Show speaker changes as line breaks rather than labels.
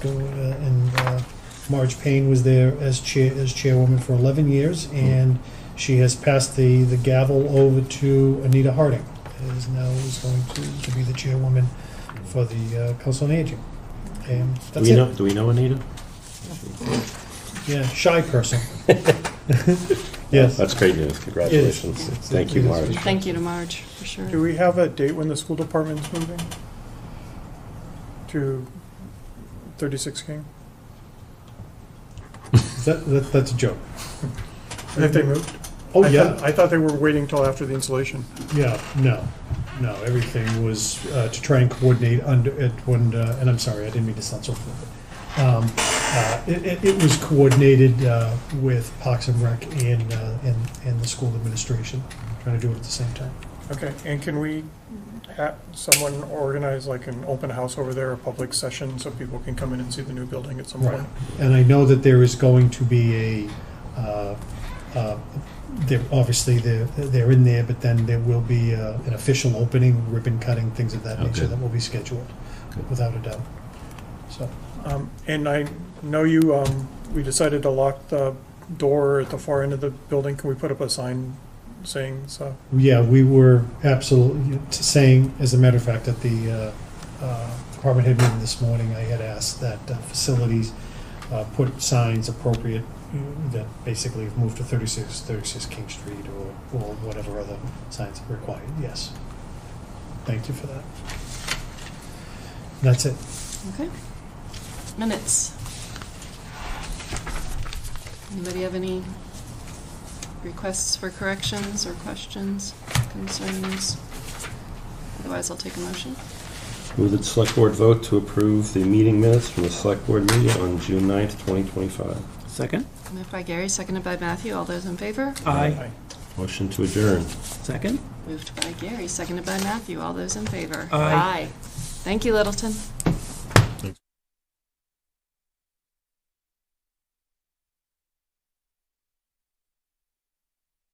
uh, and uh, Marge Payne was there as chair, as chairwoman for 11 years, and she has passed the, the gavel over to Anita Harding, who is now is going to, to be the chairwoman for the uh, Council on Aging. And
Do
that's
we
it.
know, do we know Anita?
Yeah, shy person. Yes.
That's great news, congratulations. Thank you, Marge.
Thank you to Marge, for
Do
sure.
we have a date when the school department's moving? To thirty-six King?
That, that, that's a joke.
Have they moved?
Oh,
I thought-
yeah,
I thought they were waiting till after the installation.
yeah, no, no, everything was uh, to try and coordinate under, it when, uh, and I'm sorry, I didn't mean to sound so flippant. Um, uh, It, it- it was coordinated uh, with Parks and Rec and, uh, and, and the school administration, trying to do it at the same time.
Okay, and can we have someone organize like an open house over there, a public session, so people can come in and see the new building at some point?
Right. And I know that there is going to be a, uh, uh, they're, obviously, they're, they're in there, but then there will be uh, an official opening, ribbon cutting, things of that
Oh,
nature
good.
that will be scheduled,
Good.
without a doubt. So,
Um, and I know you, um, we decided to lock the door at the far end of the building. Can we put up a sign saying so?
yeah, we were absolutely saying, as a matter of fact, at the uh, uh, department head meeting this morning, I had asked that uh, facilities uh, put signs appropriate that basically have moved to 36, 36 King Street or, or whatever other signs are required, yes. Thank you for that. That's it.
Okay. Minutes. Anybody have any requests for corrections or questions, concerns? Otherwise, I'll take a motion.
Move that the select board vote to approve the meeting minutes from the select board meeting on June 9th, 2025.
Second?
Moved by Gary, seconded by Matthew. All those in favor?
Aye.
Motion to adjourn.
Second?
Moved by Gary, seconded by Matthew. All those in favor?
Aye.
Thank you, Littleton.